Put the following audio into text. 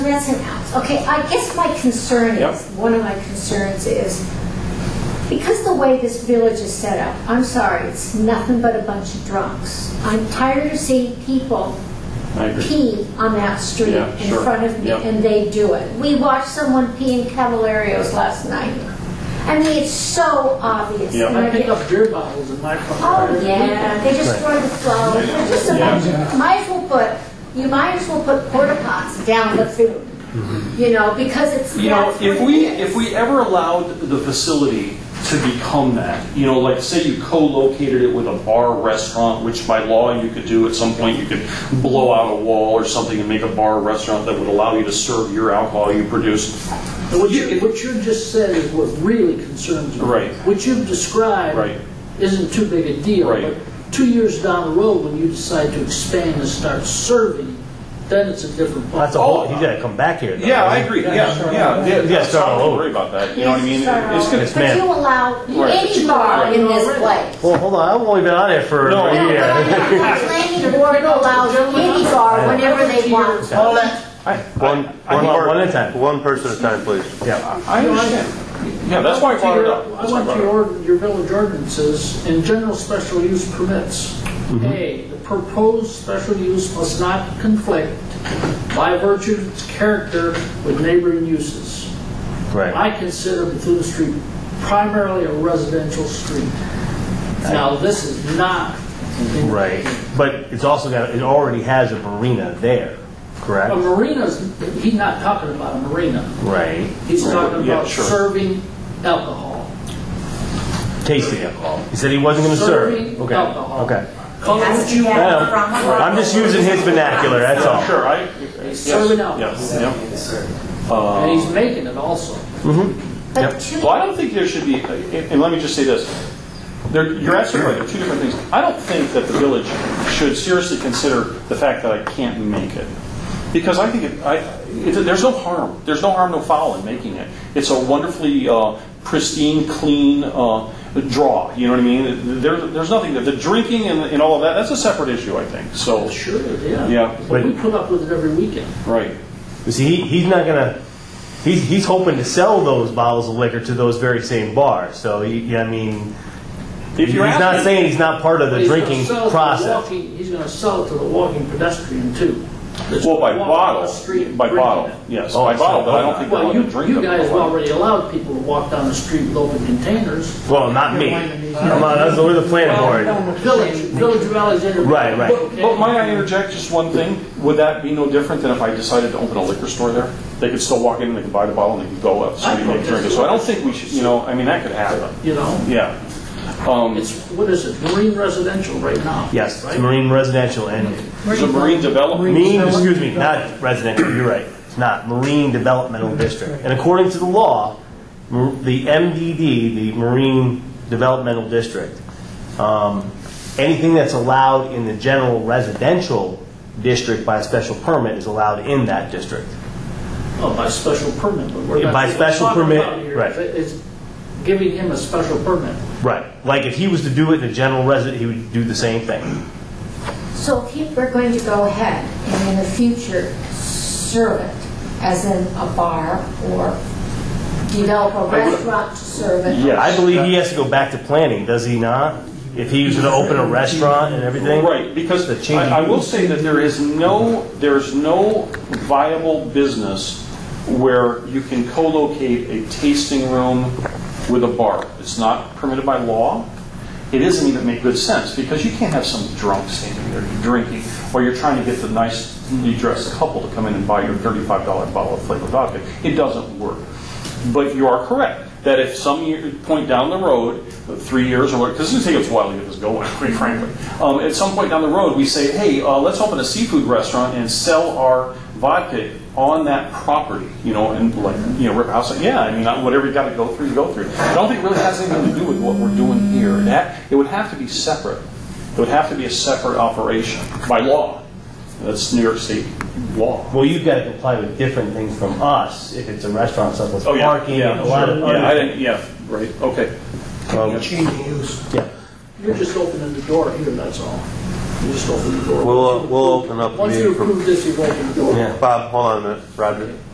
That's an out. Okay, I guess my concern Yep. is, one of my concerns is, because the way this village is set up, I'm sorry, it's nothing but a bunch of drunks. I'm tired of seeing people I agree. pee on that street Yeah, in sure. front of me, Yeah. and they do it. We watched someone pee in Cavalarios last night. I mean, it's so obvious. Yeah. and I I pick get- up beer bottles in my car. Oh, yeah, they just throw the flowers, They're just a bunch of, might as well put, you might as well put porta pots down the food, Mm-hmm. you know, because it's. You know, that's if what we, it is. if we ever allowed the facility to become that, you know, like say you co-located it with a bar restaurant, which by law you could do at some point, you could blow out a wall or something and make a bar restaurant that would allow you to serve your alcohol you produce. And What you, what you just said is what really concerns me. Right. What you've described Right. isn't too big a deal. Right. But two years down the road, when you decide to expand and start serving, then it's a different. That's a ball. whole, he's got to come back here. though, Yeah, I right? agree, yeah, Yeah, start yeah. all yeah, over. that's- Start all I don't over. worry about that, you know what I mean? Yes, sir. It's gonna, Yes, ma'am. But you allow Right. any bar in this place. Well, hold on. I've only been on it for No. a No, year. no, no, the planning board allows any bar whenever they want. All that One, I- one one per- one at a time. One person at a time, please. Yeah. I understand. Yeah, that's why I brought it up. I That's why I want brought it your, up. ord- your village ordinances and general special use permits. Mm-hmm. A, the proposed special use must not conflict by virtue of its character with neighboring uses. Right. I consider Bethune Street primarily a residential street. Now, this is not. Right. But it's also got, it already has a marina there, correct? A marina's, he's not talking about a marina. Right. He's talking Yeah, about sure. serving alcohol. Tasting alcohol. He said he wasn't going to Serving serve. Okay. alcohol. Okay. Call it what you want. Yeah, I'm just using his vernacular, that's all. Sure, I, He's yes, serving alcohol. yes, yeah. And he's making it also. But two, Well, I don't think there should be, and and let me just say this, there, you're absolutely right, there are two different things. I don't think that the village should seriously consider the fact that I can't make it. Because I think, it- I, it- there's no harm, there's no harm, no foul in making it. It's a wonderfully uh, pristine, clean uh, draw, you know what I mean? There, there's nothing, the drinking and and all of that, that's a separate issue, I think, so, Sure, yeah. Yeah. But we put up with it every weekend. right. You see, he, he's not going to, he's, he's hoping to sell those bottles of liquor to those very same bars. So, he- yeah, I mean, If he's you're not asking- saying he's not part of the He's gonna drinking sell it to the process. walking- He's going to sell it to the walking pedestrian too. That's Well, by walking down the bottle, street by drinking bottle, it. yes, Oh, by I bottle, see. but I don't think they're Well, you, allowed to drink you them. guys Why? already allowed people to walk down the street with open containers. Well, not me. Come on, that's over the planning board. Village, Village of Alexander. Right, right. But but might I interject just one thing? Would that be no different than if I decided to open a liquor store there? They could still walk in and they could buy the bottle and they could go up, somebody make a drink. it. So I don't think we should, you know, I mean, that could happen. You know, Yeah. Um, it's, what is it, marine residential right now? Yes, it's right? marine residential and, There's a marine development. mean, excuse me, not residential, you're right. It's not, marine developmental district. And according to the law, mar- the MDD, the marine developmental district, um, anything that's allowed in the general residential district by a special permit is allowed in that district. Oh, by special permit, but we're Yeah, not. by we're special talking permit, about here right. is- Is giving him a special permit. Right. Like if he was to do it in the general resident, he would do the same thing. so if you- we're going to go ahead and in the future serve it as in a bar or develop a restaurant to serve it. Yeah. I believe he has to go back to planning, does he not? If he was going to open a restaurant and everything? Right, because The change- I I will say that there is no, there is no viable business where you can co-locate a tasting room with a bar. It's not permitted by law. It doesn't even make good sense, because you can't have some drunk standing there drinking, or you're trying to get the nicely dressed couple to come in and buy your $35 bottle of flavored vodka. It doesn't work. But you are correct, that if some year- point down the road, three years or what, because it's going to take us a while to get this going, quite frankly. Um, At some point down the road, we say, hey, uh, let's open a seafood restaurant and sell our vodka on that property, you know, and like, you know, rip a house, yeah, I mean, uh, whatever you got to go through, you go through. I don't think it really has anything to do with what we're doing here. It ha- It would have to be separate. It would have to be a separate operation by law. That's New York State law. Well, you've got to comply with different things from us if it's a restaurant, stuff with parking, and a lot of sure. Oh, Yeah, I other. didn't, yeah, right, okay. um, Change of use. yeah. You're just opening the door here, that's all. You just open the door. We'll, uh, we'll open up the Once you meeting for, approve this, you've opened the door. Yeah. Bob, hold on a minute, Roger.